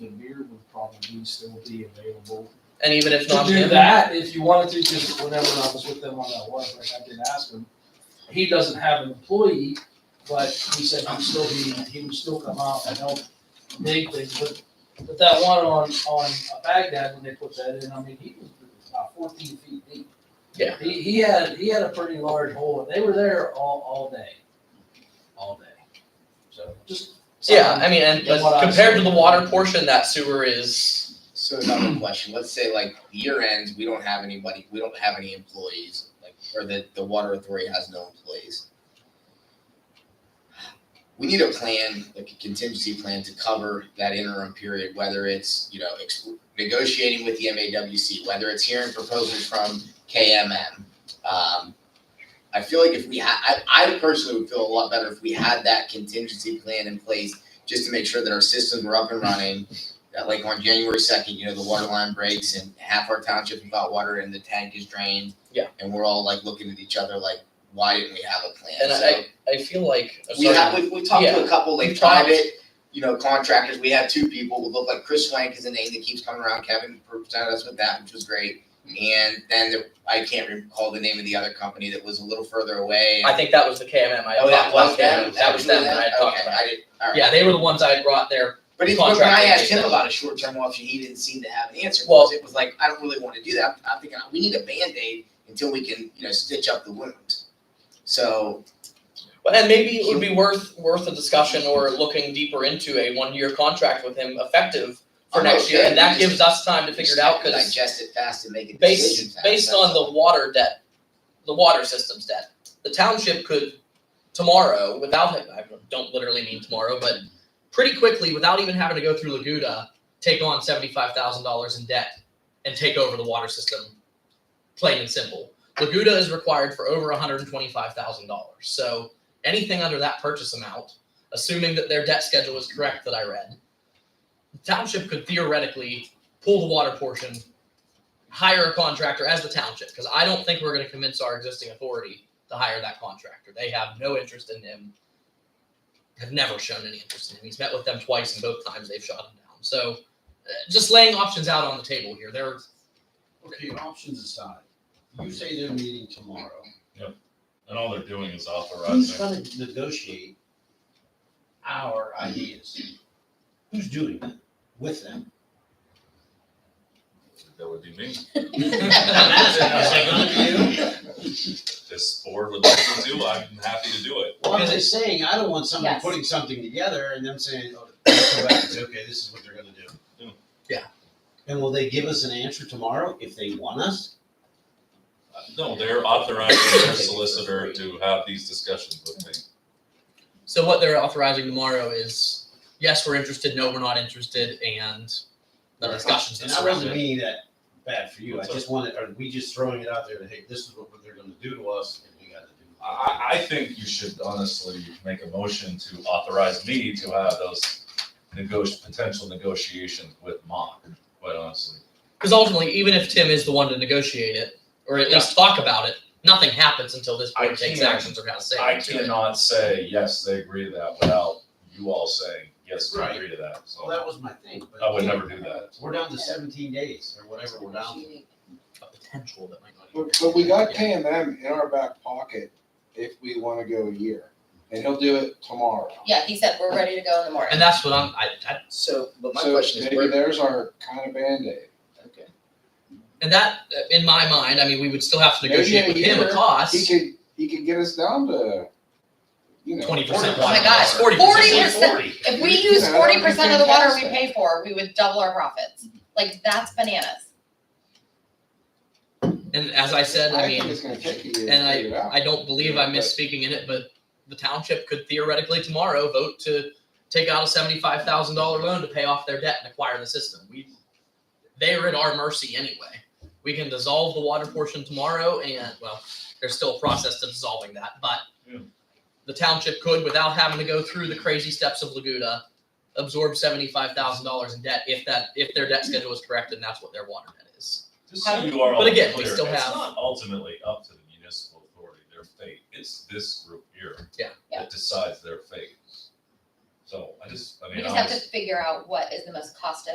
probably still be available. And even if To not do him, that, if you wanted to, because whenever I was with them on that one, like I did ask him, he doesn't have an employee, but he said he'd still be, he would still come out and help make things, but, but that one on, on Baghdad, when they put that in, I mean, he was about fourteen feet deep. Yeah. He, he had, he had a pretty large hole, and they were there all, all day, all day, so just. yeah, I mean, and That's what I was compared to the saying. water portion, that sewer is, So another question, let's say like year ends, we don't have anybody, we don't have any employees, like, or the, the water authority has no employees. We need a plan, like a contingency plan to cover that interim period, whether it's, you know, ex- negotiating with the MAWC, whether it's hearing proposals from KMM. Um, I feel like if we had, I, I personally would feel a lot better if we had that contingency plan in place just to make sure that our systems were up and running, that like on January second, you know, the water line breaks and half our township is without water and the tank is drained. Yeah. And we're all like looking at each other like, why didn't we have a plan? and So- I, I feel like. we have, we, we talked to a couple We like talked. private, you know, contractors, we had two people who look like Chris Swank is a name that keeps coming around, Kevin presented us with that, which was great. And then there- I can't recall the name of the other company that was a little further away. I think that was the KMM I had Oh, that talked about. was them, KMM. That was them that I had talked Okay, about. I did, alright. Yeah, they were the ones I had brought there. But even when I contractor did asked him that. about a short-term option, he didn't seem to have an answer. Well- because it was like, I don't really want to do that. I'm thinking we need a band-aid until we can, you know, stitch up the wound. So But and maybe it would be worth worth a discussion or looking deeper into a one year contract with him effective for I'm next year, okay. and that We gives us time to figure it out because digest it fast and make a decision based fast. based on the water debt, the water system's debt, the township could tomorrow without it. I don't literally mean tomorrow, but pretty quickly without even having to go through Laguda, take on seventy five thousand dollars in debt and take over the water system. Plain and simple, Laguda is required for over one hundred and twenty five thousand dollars. So anything under that purchase amount, assuming that their debt schedule is correct that I read, the township could theoretically pull the water portion hire a contractor as the township because I don't think we're going to convince our existing authority to hire that contractor. They have no interest in him. Have never shown any interest in him. He's met with them twice, and both times they've shot him down. So, uh, just laying options out on the table here. There, Okay, options aside, you say they're meeting tomorrow, And all they're doing is who's authorizing. gonna negotiate our ideas? Who's doing that with them? That would be me. Is it If This board would like to do, I'm happy to do it. Well, I'm just saying, I don't want someone Yes. putting something together and them saying, oh, that's correct, it's okay, this is what they're gonna Yeah. do. Yeah. And will they give us an answer tomorrow if they want us? No, they're authorizing their solicitor to have these discussions with me. so what they're authorizing tomorrow is yes, we're interested. No, we're not interested, and the discussions that And I surround wasn't it. meaning that bad for you, I What's just wanted, are we just throwing it out there that, hey, this is what they're gonna do to us and we gotta do. it? I, I think you should honestly make a motion to authorize me to have those negoti potential negotiations with Mock, quite honestly. Because ultimately, even if Tim is the one to negotiate it or at least talk about it, nothing happens until this I board takes can't- actions or kind of say. I cannot say, yes, they agree to that without you all saying, yes, we agree to that, Well, so that was my thing, but. I would never do that. We're down to seventeen days or whatever we're down to. a potential that might not. even But, but we got happen. KMM in our back pocket if we wanna go a year, and he'll do it tomorrow. Yeah, he said, we're ready to go in the morning. And that's what I'm, I, I, So, but my So question is, Maybe where, there's our kind of Band-Aid. okay, and that, uh, in my mind, I mean, we would still have to Maybe negotiate with a him a year, He cost, could, he could get us down to, you know. twenty percent. Oh my gosh, Forty 40%. If we use Yeah, forty percent of the water we fantastic. pay for, we would double our profits. Like, that's bananas. And as I said, I think mean, it's gonna take a year to and I- figure it out. I don't believe I'm misspeaking in it, but the township could theoretically tomorrow vote to take out a seventy-five thousand dollar loan to pay off their debt and acquire the system. We, they're at our mercy anyway. We can dissolve the water portion tomorrow and, well, there's still a process to dissolving that, but Yeah. the township could, without having to go through the crazy steps of Laguda, absorb seventy-five thousand dollars in debt if that, if their debt schedule is correct and that's what their water debt is. Just so you are all But again, we clear, still it's have- not ultimately up to the municipal authority, their fate, it's this group here. Yeah. Yeah. That decides their fate. So I just, I We mean, just have honestly. to figure out what is the most cost